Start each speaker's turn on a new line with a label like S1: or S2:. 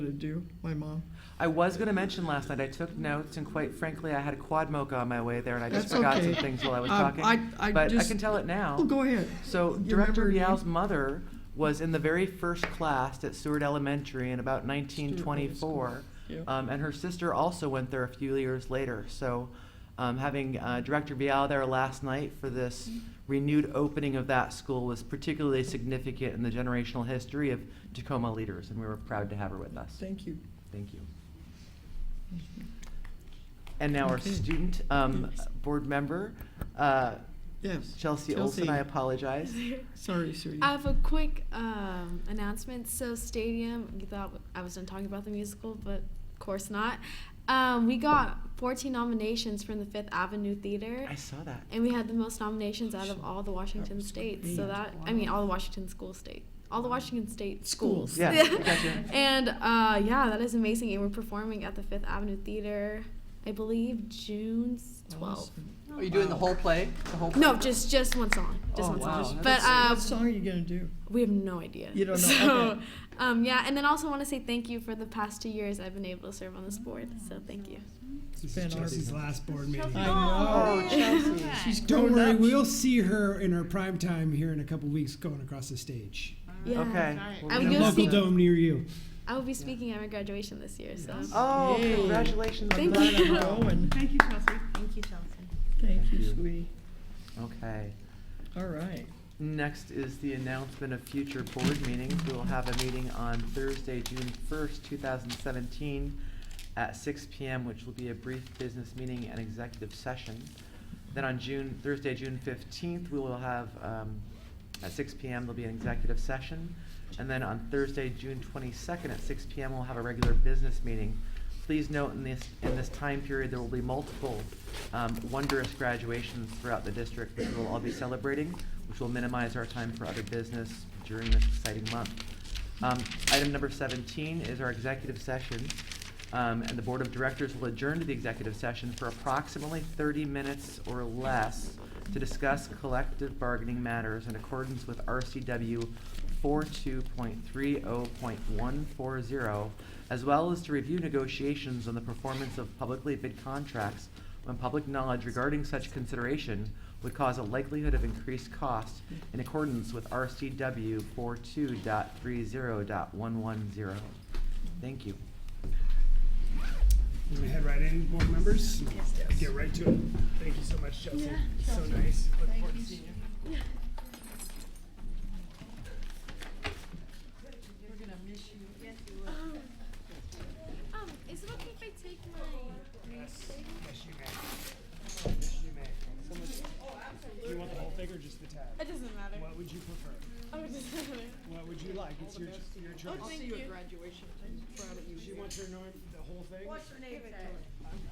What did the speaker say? S1: to do, my mom.
S2: I was going to mention last night, I took notes, and quite frankly, I had a quad mocha on my way there, and I just
S1: That's
S2: forgot
S1: okay.
S2: some things while I was
S1: Um,
S2: talking.
S1: I- I
S2: But I
S1: just-
S2: can tell it
S1: Oh,
S2: now.
S1: go ahead.
S2: So
S1: You
S2: Director
S1: remembered me.
S2: Rial's mother was in the very first class at Seward Elementary in about 1924.
S1: Yeah.
S2: Um, and her sister also went there a few years later. So um, having uh, Director Vial there last night for this renewed opening of that school was particularly significant in the generational history of Tacoma leaders, and we were proud to have her with us.
S1: Thank you.
S2: Thank you. And now our
S1: Okay.
S2: student um,
S1: Yes.
S2: board member, uh,
S1: Yes.
S2: Chelsea Olson, I apologize.
S1: Sorry, Sue.
S3: I have a quick um, announcement. So, Stadium, you thought I was done talking about the musical, but of course not. Um, we got 14 nominations from the Fifth Avenue Theater,
S2: I saw that.
S3: and we had the most nominations out of all the Washington
S1: was
S3: states.
S1: great.
S3: So, that, I mean, all the Washington school state, all the Washington state
S1: Schools.
S3: schools.
S2: Yeah, gotcha.
S3: and uh, yeah, that is amazing. And we're performing at the Fifth Avenue Theater, I believe, June 12th.
S4: Are you doing the whole play? The whole
S3: No, just just one song. Just
S2: Oh,
S3: one
S2: wow.
S3: song. But
S2: That's-
S3: uh,
S1: What song are you gonna do?
S3: We have no idea.
S1: You don't know,
S3: So,
S1: okay.
S3: um, yeah, and then also want to say thank you for the past two years I've been able to serve on this board. So thank you.
S1: It's
S5: This
S1: been
S5: is
S1: our-
S5: Chelsea's last board meeting.
S1: I know. She's grown
S5: Don't worry,
S1: up.
S5: we'll see her in her prime time here in a couple weeks going across the stage.
S3: Yeah.
S2: Okay.
S3: uh, I
S5: In
S3: would
S5: a
S3: go
S5: local
S3: see.
S5: dome near you.
S3: I will be speaking at my graduation this year. So
S2: Oh,
S1: Yay.
S2: congratulations.
S3: Thank
S1: Glad I'm
S3: you.
S1: going.
S6: Thank you, Chelsea. Thank you, Chelsea.
S1: Thank you,
S2: you.
S1: sweetie.
S2: Okay.
S1: All right.
S2: Next is the announcement of future board meetings. We will have a meeting on Thursday, June first, two thousand seventeen, at six P M, which will be a brief business meeting and executive session. Then on June, Thursday, June fifteenth, we will have, um, at six P M, there'll be an executive session. And then on Thursday, June twenty-second, at six P M, we'll have a regular business meeting. Please note in this, in this time period, there will be multiple, um, wondrous graduations throughout the district, which we'll all be celebrating, which will minimize our time for other business during this exciting month. Um, item number seventeen is our executive session. Um, and the Board of Directors will adjourn to the executive session for approximately thirty minutes or less to discuss collective bargaining matters in accordance with RCW four-two point three oh point one four zero, as well as to review negotiations on the performance of publicly bid contracts when public knowledge regarding such consideration would cause a likelihood of increased cost in accordance with RCW 42.30.110. Thank you.
S5: We're gonna head right in, board members. Get right to it. Thank you so much, Chelsea. So nice. Look forward to seeing you.
S3: Um, is it okay if I take my?
S5: Yes, yes, you may. Yes, you may. Someone- Do you want the whole thing or just the tab?
S3: It doesn't matter.
S5: What would you prefer?
S3: Oh, it doesn't matter.
S5: What would you like? It's your, ch- your choice.
S3: Thank you.
S5: She wants her, norm- the whole thing?